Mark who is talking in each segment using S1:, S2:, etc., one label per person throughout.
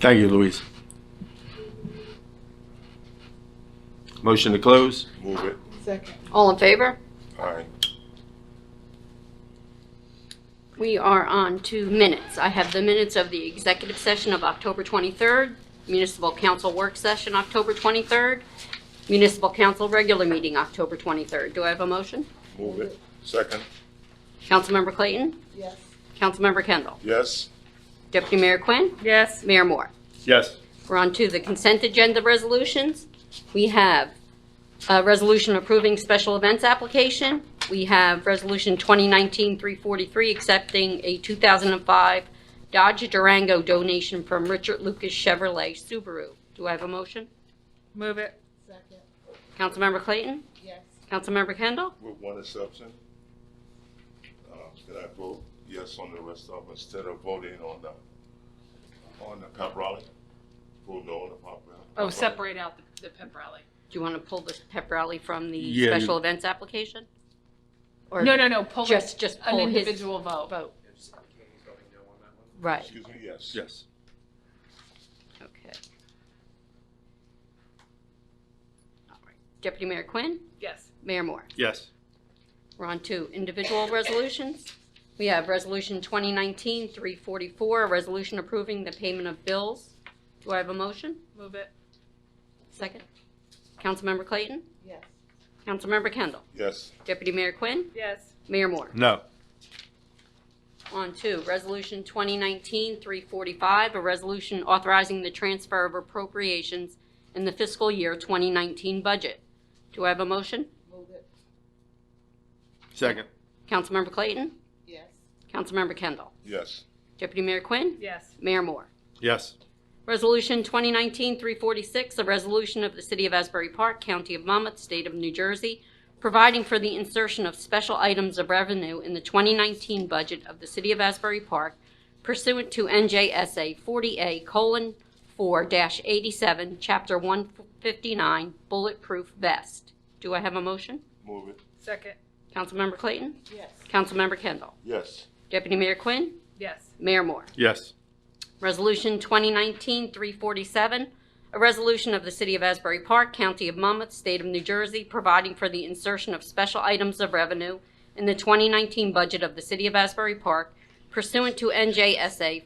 S1: Thank you, Louise. Motion to close?
S2: Move it.
S3: Second.
S4: All in favor?
S2: Aye.
S4: We are on to minutes. I have the minutes of the executive session of October 23rd, municipal council work session October 23rd, municipal council regular meeting October 23rd. Do I have a motion?
S2: Move it. Second.
S4: Councilmember Clayton?
S3: Yes.
S4: Councilmember Kendall?
S2: Yes.
S4: Deputy Mayor Quinn?
S5: yes,
S4: Mayor Moore?
S1: Yes.
S4: We're on to the consent agenda resolutions. We have a resolution approving special events application. We have Resolution 2019-343, accepting a 2005 Dodge Durango donation from Richard Lucas Chevrolet Subaru. Do I have a motion?
S5: move it,
S3: Second.
S4: Councilmember Clayton?
S3: Yes.
S4: Councilmember Kendall?
S2: With one exception. Uh, Did I vote yes on the rest of them instead of voting on the, on the pep rally? Vote no on the pep rally?
S6: Oh, separate out the, the pep rally.
S4: Do you want to pull this pep rally from the
S1: Yeah, you-
S4: special events application? Or
S6: No, no, no, pull it-
S4: Just- just
S6: an
S4: pull his-
S6: individual vote.
S4: Vote. Right,
S2: Excuse me, yes.
S1: Yes.
S4: okay. All right. Deputy Mayor Quinn?
S6: Yes,
S4: Mayor Moore?
S1: Yes.
S4: We're on to individual resolutions. We have Resolution 2019-344, a resolution approving the payment of bills. Do I have a motion?
S6: move it,
S4: Second. Councilmember Clayton?
S3: Yes.
S4: Councilmember Kendall?
S2: Yes.
S4: Deputy Mayor Quinn?
S6: yes,
S4: Mayor Moore?
S1: No.
S4: On to Resolution 2019-345, a resolution authorizing the transfer of appropriations in the fiscal year 2019 budget. Do I have a motion?
S3: Move it.
S1: Second.
S4: Councilmember Clayton?
S3: Yes.
S4: Councilmember Kendall?
S2: Yes.
S4: Deputy Mayor Quinn?
S6: yes,
S4: Mayor Moore?
S1: Yes.
S4: Resolution 2019-346, a resolution of the City of Asbury Park, County of Monmouth, State of New Jersey, providing for the insertion of special items of revenue in the 2019 budget of the City of Asbury Park pursuant to NJSA 40A:4-87, Chapter 159, Bulletproof Vest. Do I have a motion?
S2: Move it.
S6: second,
S4: Councilmember Clayton?
S3: Yes.
S4: Councilmember Kendall?
S2: Yes.
S4: Deputy Mayor Quinn?
S6: yes,
S4: Mayor Moore?
S1: Yes.
S4: Resolution 2019-347, a resolution of the City of Asbury Park, County of Monmouth, State of New Jersey, providing for the insertion of special items of revenue in the 2019 budget of the City of Asbury Park pursuant to NJSA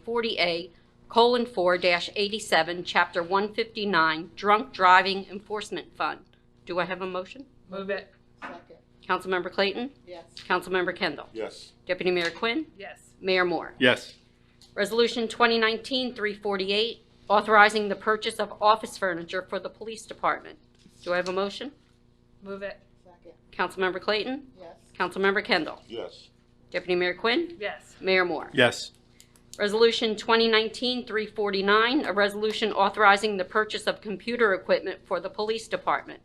S4: 40A:4-87, Chapter 159, Drunk Driving Enforcement Fund. Do I have a motion?
S6: move it,
S3: Second.
S4: Councilmember Clayton?
S3: Yes.
S4: Councilmember Kendall?
S2: Yes.
S4: Deputy Mayor Quinn?
S6: yes,
S4: Mayor Moore?
S1: Yes.
S4: Resolution 2019-348, authorizing the purchase of office furniture for the police department. Do I have a motion?
S6: move it,
S3: Second.
S4: Councilmember Clayton?
S3: Yes.
S4: Councilmember Kendall?
S2: Yes.
S4: Deputy Mayor Quinn?
S6: yes,
S4: Mayor Moore?
S1: Yes.
S4: Resolution 2019-349, a resolution authorizing the purchase of computer equipment for the police department.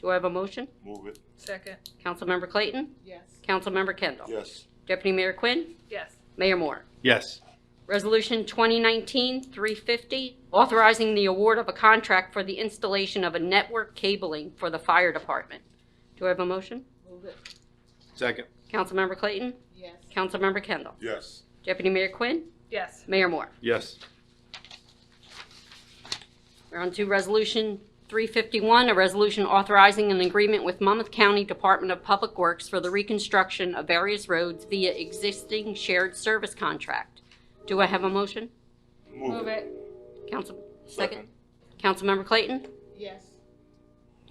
S4: Do I have a motion?
S2: Move it.
S6: second,
S4: Councilmember Clayton?
S3: Yes.
S4: Councilmember Kendall?
S2: Yes.
S4: Deputy Mayor Quinn?
S6: yes,
S4: Mayor Moore?
S1: Yes.
S4: Resolution 2019-350, authorizing the award of a contract for the installation of a network cabling for the fire department. Do I have a motion?
S3: Move it.
S1: Second.
S4: Councilmember Clayton?
S3: Yes.
S4: Councilmember Kendall?
S2: Yes.
S4: Deputy Mayor Quinn?
S6: yes,
S4: Mayor Moore?
S1: Yes.
S4: We're on to Resolution 351, a resolution authorizing an agreement with Monmouth County Department of Public Works for the reconstruction of various roads via existing shared service contract. Do I have a motion?
S6: move it,
S4: Council, second? Councilmember Clayton?
S3: Yes.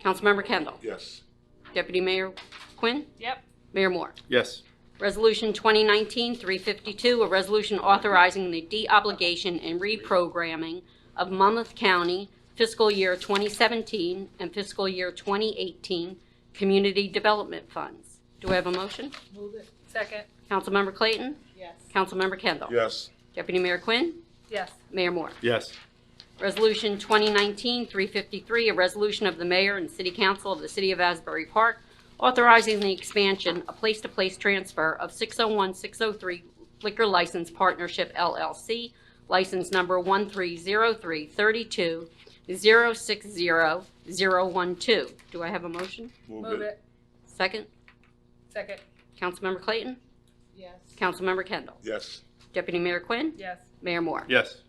S4: Councilmember Kendall?
S2: Yes.
S4: Deputy Mayor Quinn?
S6: yep,
S4: Mayor Moore.
S1: Yes.
S4: Resolution 2019-352, a resolution authorizing the deobligation and reprogramming of Monmouth County fiscal year 2017 and fiscal year 2018 Community Development Funds. Do I have a motion?
S3: Move it.
S6: second,
S4: Councilmember Clayton?
S3: Yes.
S4: Councilmember Kendall?
S2: Yes.
S4: Deputy Mayor Quinn?
S6: yes,
S4: Mayor Moore.
S1: Yes.
S4: Resolution 2019-353, a resolution of the mayor and city council of the city of Asbury Park authorizing the expansion, a place-to-place transfer of 601-603 Liquor License Partnership LLC, license number 130332060012. Do I have a motion?
S6: move it,
S4: Second,
S6: second,
S4: Councilmember Clayton,
S3: Yes.
S4: Councilmember Kendall.
S2: Yes.
S4: Deputy Mayor Quinn,
S6: yes,
S4: Mayor Moore.
S1: Yes.